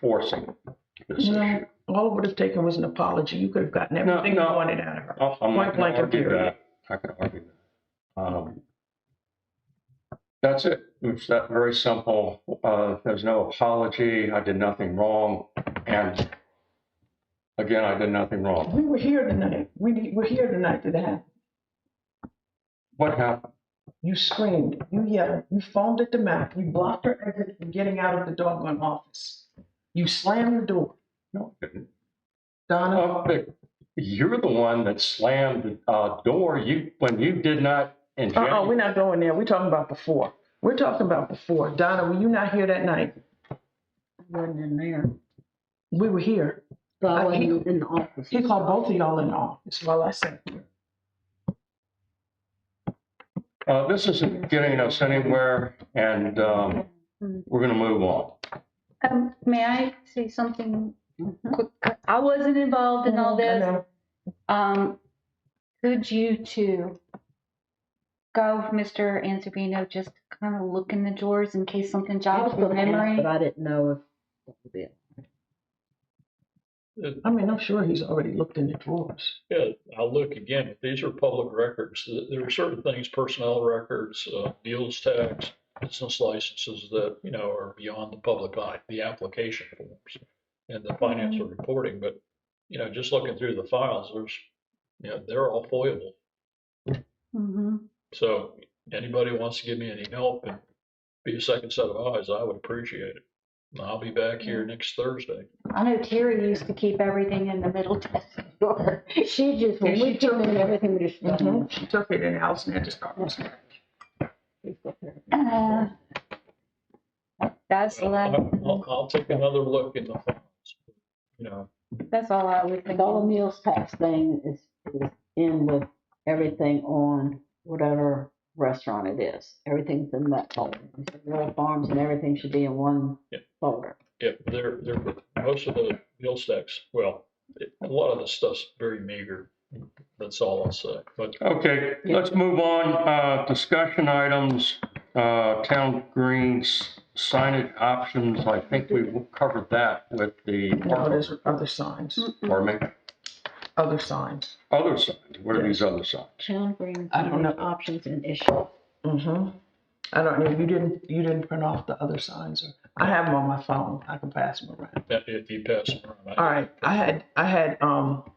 forcing this issue. No, all it would have taken was an apology. You could have gotten No, everything you no. wanted out of her. Oh, I'm not going Point blank to argue period. that. I can argue that. Um, That's it. It's that very simple. Uh, There's no apology. I did nothing wrong. And again, I did nothing wrong. We were here tonight. We, need- we're here tonight to that. What happened? You screamed, you yelled, you foamed at the mouth, you blocked her exit from getting out of the doggone office. You slammed the door. No, I didn't. Donna, Uh, but You're the one that slammed the uh, door you, when you did not in uh-uh, we're January. not going there. We're talking about before. We're talking about before. Donna, were you not here that night? wasn't in there, We were here. so I I can't- wasn't in the office. He called both of y'all in the office while I sat here. Uh, This isn't getting us anywhere and um, we're going to move on. Um, may I say something quick? I wasn't involved in all I this. know. Um, could you two go with Mr. Ansobino, just kind of look in the drawers in case something jogs the memory? But I didn't know if that would be it. I mean, I'm sure he's already looked in the drawers. Yeah, I'll look again, but these are public records. Th- There are certain things, personnel records, uh, deals tax, business licenses that, you know, are beyond the public eye, the application forms and the financial reporting, but, you know, just looking through the files, there's, you know, they're all foilable. Mm-hmm. So anybody wants to give me any help and be a second set of eyes, I would appreciate it. And I'll be back here next Thursday. I know Terry used to keep everything in the middle desk drawer. She just, when we turned in everything, we just. Mm-hmm. Mhm. She took it and Allison had to start. from scratch. Uh, That's the Well, I- last, I'll, I'll take another look in the files, you know. that's all I was The whole thinking. meals tax thing is, is in with everything on whatever restaurant it is. Everything's in that folder. Rural farms and everything should be in one Yeah. folder. Yeah, they're, they're, most of the meal stacks, well, it- a lot of the stuff's very meager. That's all I'll say. But Okay, let's move on. Uh, Discussion items, uh, town greens, signage options. I think we covered that with the, No, there's other signs, or make other signs. other signs. What are these other signs? Town brings I don't know. options and issues. Mm-hmm. I don't know, you didn't, you didn't print off the other signs or, I have them on my phone. I can pass them around. that- if you pass them around, All I- right, I had, I had, um,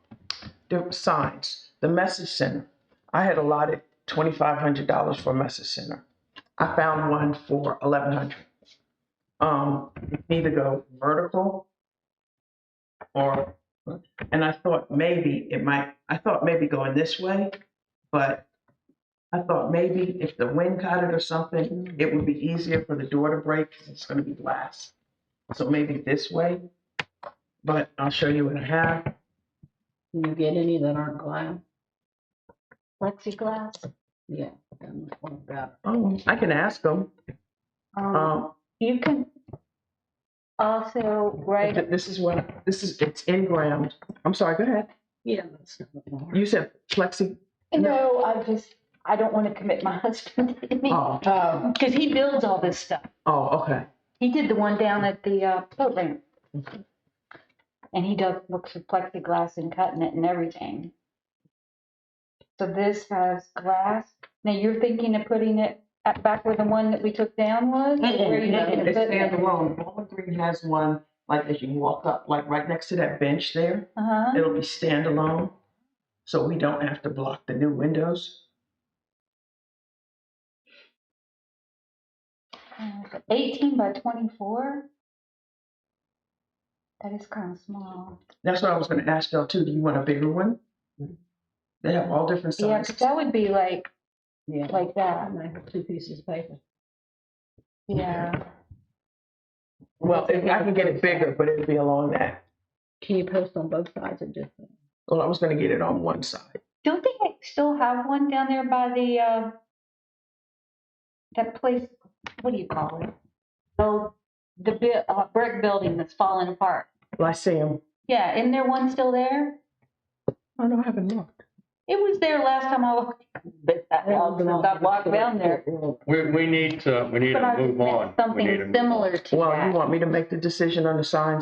the signs, the message center. I had allotted twenty-five hundred dollars for message center. I found one for eleven hundred. Um, either go vertical or, and I thought maybe it might, I thought maybe going this way, but I thought maybe if the wind caught it or something, it would be easier for the door to break because it's gonna be glass. So maybe this way, but I'll show you what I have. Can you get any that aren't glass? Plexiglass. Yeah. that one's one of that. Oh, I can ask them. Um, Um, you can also write th- this is what, this is, it's in ground. I'm sorry, go ahead. Yeah. that's not hard. You said plexi, No, I just, I don't want to commit my husband to me. oh, Um, Because he builds all this stuff. oh, okay. He did the one down at the uh, boat ramp. And he does looks for plexiglass and cutting it and everything. So this has glass. Now you're thinking of putting it at- back where the one that we took down was? Where you thinking of It's putting it? standalone. Bowling Green has one, like as you walk up, like right next to that bench there. Uh-huh. It'll be standalone, so we don't have to block the new windows. Uh, 18 by 24? That is kind of small. That's what I was gonna ask y'all too. Do you want a bigger one? They have all different Yeah, 'cause sizes. that would be like, Yeah. like I that. might have two pieces of paper. Yeah. Well, if I can get it bigger, but it'll be along that. Can you post on both sides of just? Well, I was gonna get it on one side. Don't they ha- still have one down there by the, uh, that place, what do you call it? Oh, the bi- uh, brick building that's falling apart. Lyceum. Yeah, isn't there one still there? Oh, no, I haven't looked. It was there last time I walked, but that long since I walked down there. We, we need to, we need But to I move on. meant We need to something move on. similar to Well, you that. want me to make the decision on the signs?